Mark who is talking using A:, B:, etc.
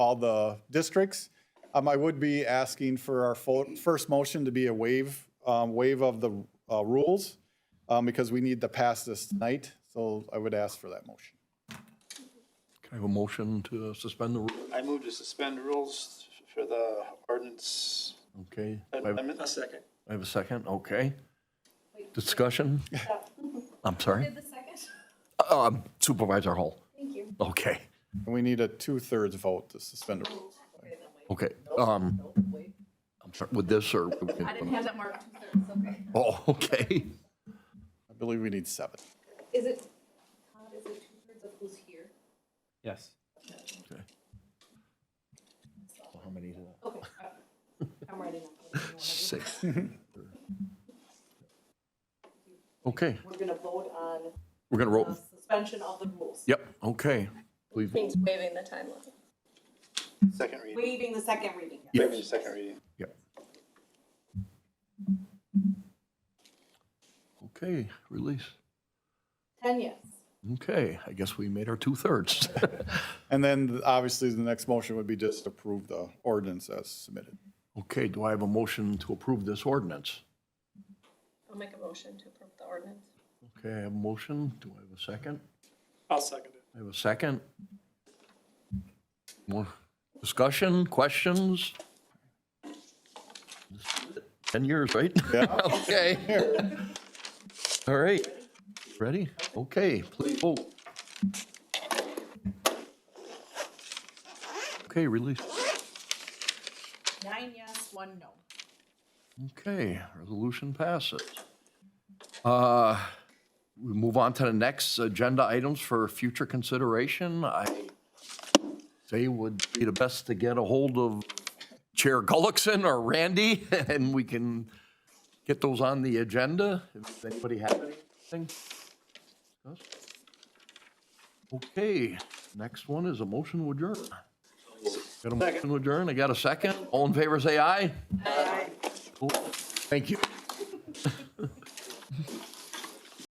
A: all the districts. Um, I would be asking for our fo- first motion to be a waive, um, waive of the uh, rules um, because we need to pass this tonight. So I would ask for that motion.
B: Can I have a motion to suspend the rule?
C: I move to suspend rules for the ordinance
B: Okay. I have-
C: amendment. A second.
B: I have a second, okay. Discussion? I'm sorry?
D: The second?
B: Um, Supervisor Hull.
D: Thank you.
B: Okay,
A: And we need a two-thirds vote to suspend the rules.
B: okay. Um, I'm sorry, with this or?
D: I didn't have that marked. It's okay.
B: Oh, okay.
A: I believe we need seven.
D: Is it, Todd, is it two-thirds of who's here?
E: Yes.
B: Okay. How many is that?
D: Okay. I'm writing up.
B: Six. Okay,
F: We're gonna vote on
B: we're gonna roll.
F: the suspension of the rules,
B: Yep, okay. We've-
D: Means waiving the time limit.
C: Second reading,
F: waiving the second reading.
C: maybe the second reading.
B: Yep. Okay, release.
F: Ten yes.
B: Okay, I guess we made our two-thirds.
A: And then obviously the next motion would be just approve the ordinance as submitted.
B: Okay, do I have a motion to approve this ordinance?
D: I'll make a motion to approve the ordinance.
B: Okay, I have a motion. Do I have a second?
C: I'll second it.
B: I have a second. More discussion, questions? Ten years, right? Okay. All right. Ready? Okay, please Oh. vote. Okay, release.
F: Nine yes, one no.
B: Okay, resolution passes. Uh, We move on to the next agenda items for future consideration. I say would be the best to get a hold of Chair Gullickson or Randy, and we can get those on the agenda. If anybody has anything. to discuss. Okay, next one is a motion to adjourn. Got a motion to adjourn? I got a second? All in favor, say aye. Cool. Thank you.